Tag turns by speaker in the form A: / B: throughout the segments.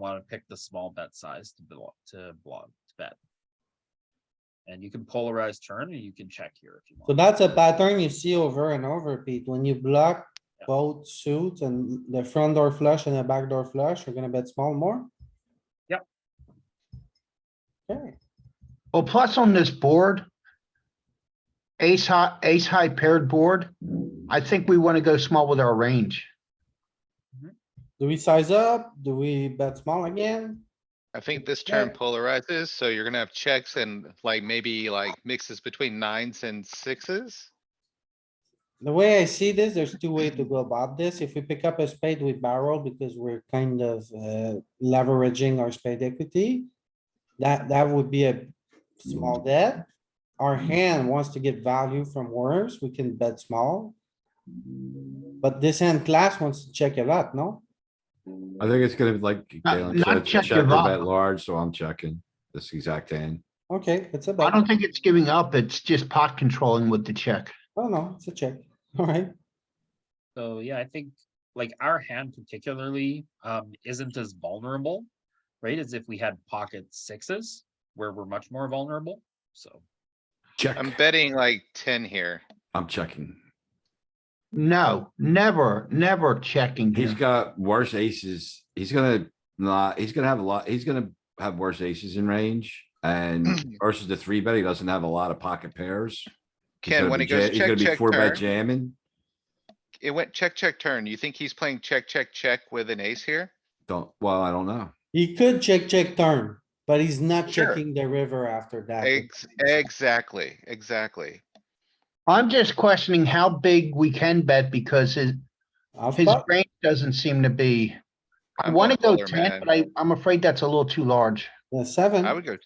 A: wanna pick the small bet size to block, to block, to bet. And you can polarize turn and you can check here if you want.
B: So that's a pattern you see over and over, Pete. When you block
A: Yeah.
B: both suits and the front door flush and the back door flush, you're gonna bet small more?
A: Yep.
B: Okay,
C: Well, plus on this board. Ace high, ace high paired board, I think we wanna go small with our range.
B: do we size up? Do we bet small again?
D: I think this turn
B: Yeah.
D: polarizes, so you're gonna have checks and like maybe like mixes between nines and sixes.
B: The way I see this, there's two ways to go about this. If we pick up a spade, we barrel because we're kind of uh, leveraging our spade equity. That, that would be a small bet. Our hand wants to get value from worms, we can bet small. But this hand class wants to check a lot, no?
E: I think it's gonna be like
C: Uh,
E: Galen
C: not
E: said,
C: check
E: check or
C: give up.
E: bet large, so I'm checking this exact hand.
B: Okay, it's a
C: I
B: bet.
C: don't think it's giving up, it's just pot controlling with the check.
B: Oh no, it's a check. Alright,
A: So yeah, I think like our hand particularly um isn't as vulnerable, right? As if we had pocket sixes where we're much more vulnerable. So
E: Check,
D: I'm betting like ten here.
E: I'm checking.
C: No, never, never checking
E: He's
C: here.
E: got worse aces. He's gonna not, he's gonna have a lot, he's gonna have worse aces in range. And versus the three bet, he doesn't have a lot of pocket pairs. He's
D: Ken,
E: gonna
D: when
E: be
D: it goes
E: ja- He's gonna
D: check,
E: be
D: check,
E: four bet
D: turn,
E: jamming.
D: it went check, check, turn. You think he's playing check, check, check with an ace here?
E: Don't, well, I don't know.
B: he could check, check turn, but he's not
D: Sure.
B: checking the river after that.
D: Ex- exactly, exactly.
C: I'm just questioning how big we can bet because his,
B: Off
C: his
B: pot.
C: range doesn't seem to be. I
D: I'm
C: wanna
D: going
C: go
D: polar,
C: ten,
D: man.
C: but I, I'm afraid that's a little too large.
B: Yeah, seven,
D: I would go,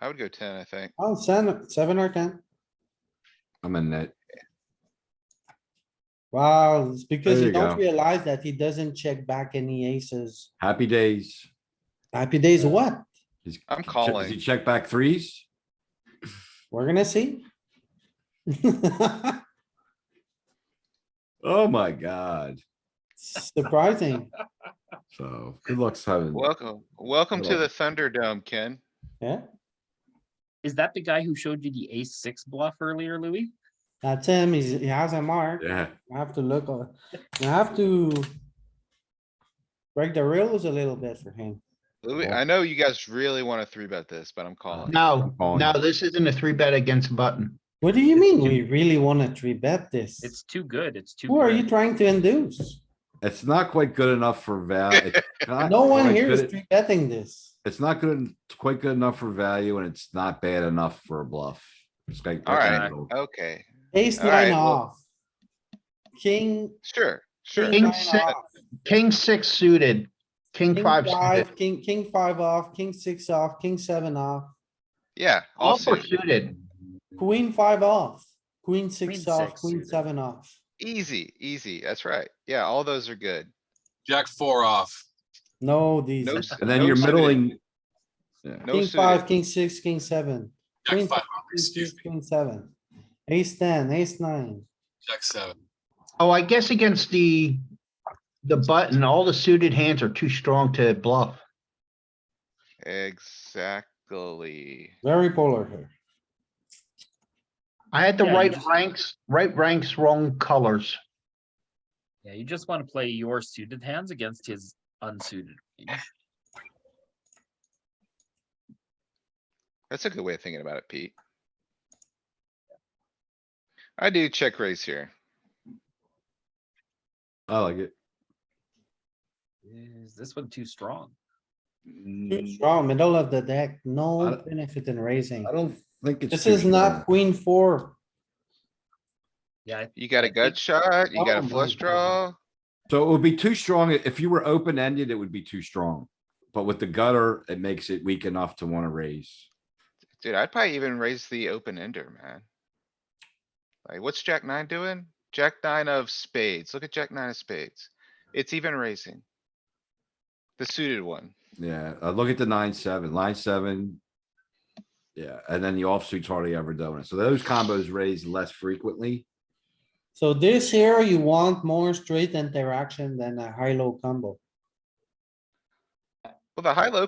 D: I would go ten, I think.
B: oh, seven, seven or ten.
E: I'm in that.
B: Wow, it's because you
E: There you
B: don't
E: go.
B: realize that he doesn't check back any aces.
E: Happy days.
B: Happy days, what?
E: He's-
D: I'm
E: he che- Does he
D: calling.
E: check back threes?
B: We're gonna see.
E: Oh my god.
B: Surprising,
E: So good luck, Simon.
D: Welcome, welcome to
E: Hello.
D: the Thunderdome, Ken.
B: yeah,
A: is that the guy who showed you the ace six bluff earlier, Louis?
B: that's him, he's, he has a mark,
E: Yeah,
B: I have to look, on- I have to. Break the rules a little bit for him,
D: Louis,
E: Well-
D: I know you guys really wanna three bet this, but I'm calling.
C: No,
E: calling.
C: no, this isn't a three bet against button.
B: what do you mean, we really wanna three bet this?
A: It's too good. It's too.
B: Who are you
A: good.
B: trying to induce?
E: it's not quite good enough for val. it's not
B: No one
E: quite
B: here
E: good
B: is
E: at-
B: three betting this,
E: It's not good, it's quite good enough for value and it's not bad enough for a bluff. It's like. right in the
D: Alright,
E: middle.
D: okay,
B: ace
D: All right,
B: nine
D: well-
B: off. King,
D: sure, sure.
B: king nine
C: six-
B: off.
C: King six suited, king
B: King
C: five suited,
B: five, king, king five off, king six off, king seven off,
D: Yeah,
C: all
D: also
C: four suited.
B: queen five off, queen six
A: Queen
B: off,
A: six
B: queen
A: suited.
B: seven off.
D: easy, easy. That's right. Yeah, all those are good.
F: Jack four off.
B: No, these,
D: No,
B: are-
D: s-
E: And then
D: no
E: you're
D: suited,
E: middling,
D: no
B: king
D: suited.
B: five, king six, king seven,
F: Jack
B: Queen
F: five
B: five,
F: off,
B: queen
F: excuse
B: six,
F: me.
B: queen seven, ace ten, ace nine.
F: Jack seven.
C: Oh, I guess against the, the button, all the suited hands are too strong to bluff.
D: Exactly.
B: Very polar here.
C: I had the
A: Yeah, you
C: right
A: just-
C: ranks, right ranks, wrong colors.
A: Yeah, you just wanna play your suited hands against his unsuited. range.
D: That's a good way of thinking about it, Pete. I do check raise here.
E: I like it.
A: Is this one too strong?
B: Too strong, middle of the deck,
E: I
B: no
E: don't-
B: benefit in raising.
E: I don't think it's.
B: This
E: too
B: is not
E: strong.
B: queen four.
A: Yeah, I-
D: You got a gut
A: think-
D: shot, you got
B: Oh
D: a
B: my
D: flush draw.
B: God.
E: So it would be too strong. If you were open ended, it would be too strong. But with the gutter, it makes it weak enough to wanna raise.
D: Dude, I'd probably even raise the open ender, man. Like, what's Jack nine doing? Jack nine of spades. Look at Jack nine of spades. It's even raising. The suited one.
E: Yeah, uh, look at the nine, seven, line seven. Yeah, and then the offsuit's hardly ever doing it. So those combos raise less frequently.
B: So this here, you want more straight interaction than a high-low combo.
D: Well, the high low